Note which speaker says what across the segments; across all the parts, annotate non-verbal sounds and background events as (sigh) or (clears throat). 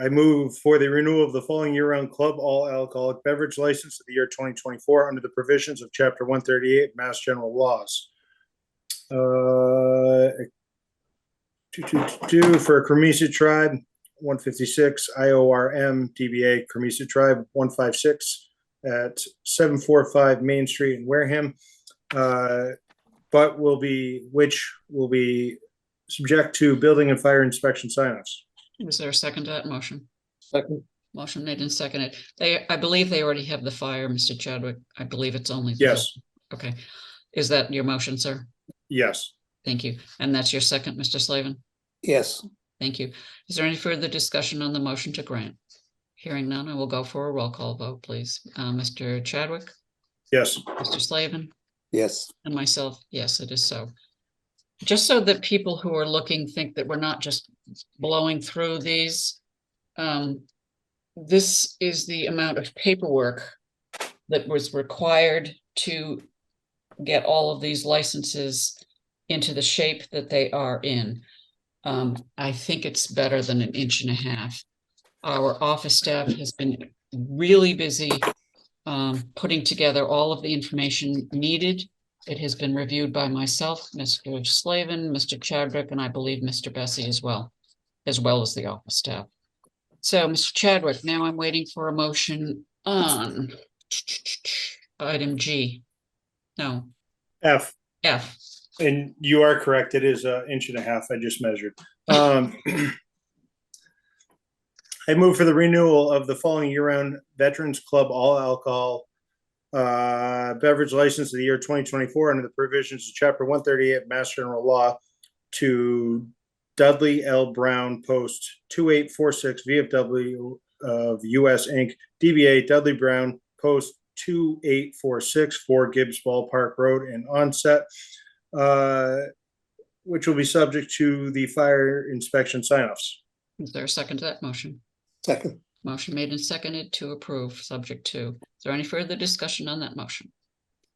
Speaker 1: I move for the renewal of the following year-round club all alcoholic beverage license of the year twenty twenty-four under the provisions of chapter one thirty-eight Mass General Laws. Uh, two, two, two, two for Cremisa Tribe, one fifty-six, I O R M, DBA Cremisa Tribe, one five six at seven four five Main Street in Wareham. Uh, but will be, which will be subject to building and fire inspection sign-offs.
Speaker 2: Is there a second to that motion?
Speaker 3: Second,
Speaker 2: Motion made and seconded. They, I believe they already have the fire, Mr. Chadwick. I believe it's only. the-
Speaker 1: Yes,
Speaker 2: Okay. Is that your motion, sir?
Speaker 1: yes.
Speaker 2: Thank you. And that's your second, Mr. Slavin?
Speaker 3: yes,
Speaker 2: Thank you. Is there any further discussion on the motion to grant? Hearing none, I will go for a roll call vote, please. Uh, Mr. Chadwick,
Speaker 1: Yes,
Speaker 2: Mr. Slavin,
Speaker 3: yes,
Speaker 2: and myself, yes, it is so. Just so that people who are looking think that we're not just blowing through these. Um, this is the amount of paperwork that was required to get all of these licenses into the shape that they are in. Um, I think it's better than an inch and a half. Our office staff has been really busy um, putting together all of the information needed. It has been reviewed by myself, Mr. Slavin, Mr. Chadwick, and I believe Mr. Bessie as well, as well as the office staff. So, Mr. Chadwick, now I'm waiting for a motion on item G. No,
Speaker 1: F,
Speaker 2: F.
Speaker 1: and you are correct, it is an inch and a half, I just measured. Um, (clears throat) I move for the renewal of the following year-round Veterans Club All Alcohol uh, Beverage License of the year twenty twenty-four under the provisions of chapter one thirty-eight Mass General Law to Dudley L. Brown Post two eight four six VFW of US Inc., DBA Dudley Brown Post two eight four six four Gibbs Ballpark Road in Onset uh, which will be subject to the fire inspection sign-offs.
Speaker 2: Is there a second to that motion?
Speaker 3: second,
Speaker 2: Motion made and seconded to approve, subject to. Is there any further discussion on that motion?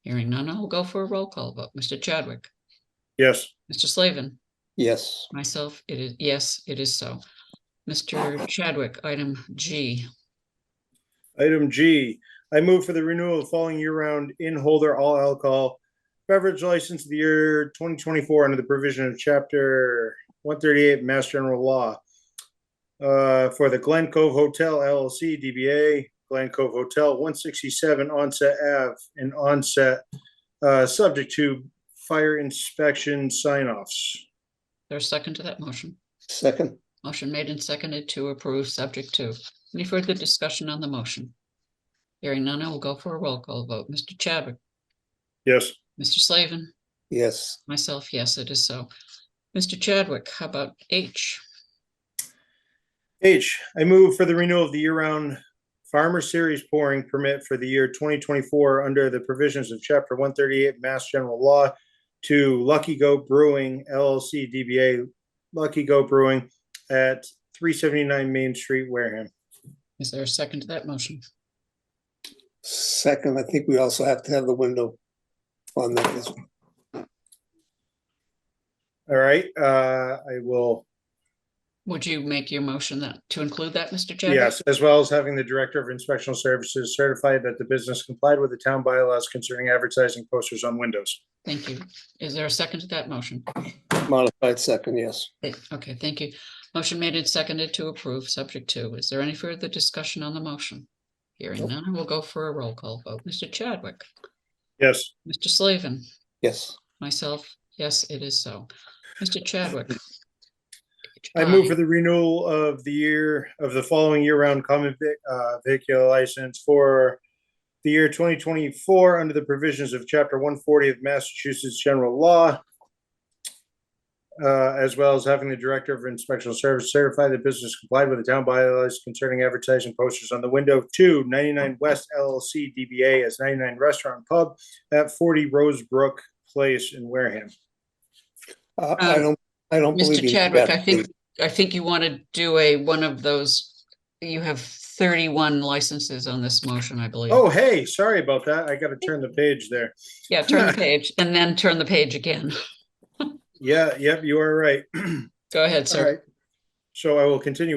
Speaker 2: Hearing none, I'll go for a roll call vote. Mr. Chadwick,
Speaker 1: Yes,
Speaker 2: Mr. Slavin,
Speaker 3: yes,
Speaker 2: myself, it is, yes, it is so. Mr. Chadwick, item G.
Speaker 1: item G, I move for the renewal of following year-round in-holder all alcohol beverage license of the year twenty twenty-four under the provision of chapter one thirty-eight Mass General Law uh, for the Glen Cove Hotel LLC DBA Glen Cove Hotel, one sixty-seven Onset Ave in Onset, uh, subject to fire inspection sign-offs.
Speaker 2: There's second to that motion.
Speaker 3: second,
Speaker 2: Motion made and seconded to approve, subject to. Any further discussion on the motion? Hearing none, I will go for a roll call vote. Mr. Chadwick,
Speaker 1: Yes.
Speaker 2: Mr. Slavin,
Speaker 3: yes,
Speaker 2: myself, yes, it is so. Mr. Chadwick, how about H?
Speaker 1: H, I move for the renewal of the year-round farmer series pouring permit for the year twenty twenty-four under the provisions of chapter one thirty-eight Mass General Law to Lucky Goat Brewing LLC DBA Lucky Goat Brewing at three seventy-nine Main Street, Wareham.
Speaker 2: Is there a second to that motion?
Speaker 3: second, I think we also have to have the window on that as well.
Speaker 1: All right, uh, I will,
Speaker 2: Would you make your motion that, to include that, Mr. Chadwick?
Speaker 1: yes, as well as having the Director of Inspectional Services certify that the business complied with the town bylaws concerning advertising posters on windows.
Speaker 2: Thank you. Is there a second to that motion?
Speaker 3: modified second, yes,
Speaker 2: Eh, Okay, thank you. Motion made and seconded to approve, subject to. Is there any further discussion on the motion? Hearing
Speaker 3: Nope.
Speaker 2: none, we'll go for a roll call vote. Mr. Chadwick,
Speaker 1: Yes.
Speaker 2: Mr. Slavin,
Speaker 3: yes,
Speaker 2: myself, yes, it is so. Mr. Chadwick.
Speaker 1: I move
Speaker 2: I-
Speaker 1: for the renewal of the year, of the following year-round common vic- uh, vehicular license for the year twenty twenty-four under the provisions of chapter one forty of Massachusetts General Law. Uh, as well as having the Director of Inspection Service certify the business complied with the town bylaws concerning advertising posters on the window to 99 West LLC DBA as ninety-nine Restaurant Pub at forty Rosebrook Place in Wareham.
Speaker 3: I, Uh, I
Speaker 2: Um,
Speaker 3: don't, I don't believe.
Speaker 2: Mr.
Speaker 3: you
Speaker 2: Chadwick,
Speaker 3: have
Speaker 2: I think,
Speaker 3: to.
Speaker 2: I think you want to do a, one of those, you have thirty-one licenses on this motion, I believe.
Speaker 1: Oh, hey, sorry about that. I gotta turn the page there.
Speaker 2: Yeah, turn the page and then turn the page again.
Speaker 1: Yeah, yep, you are right.
Speaker 2: Go ahead,
Speaker 1: All
Speaker 2: sir.
Speaker 1: right. So I will continue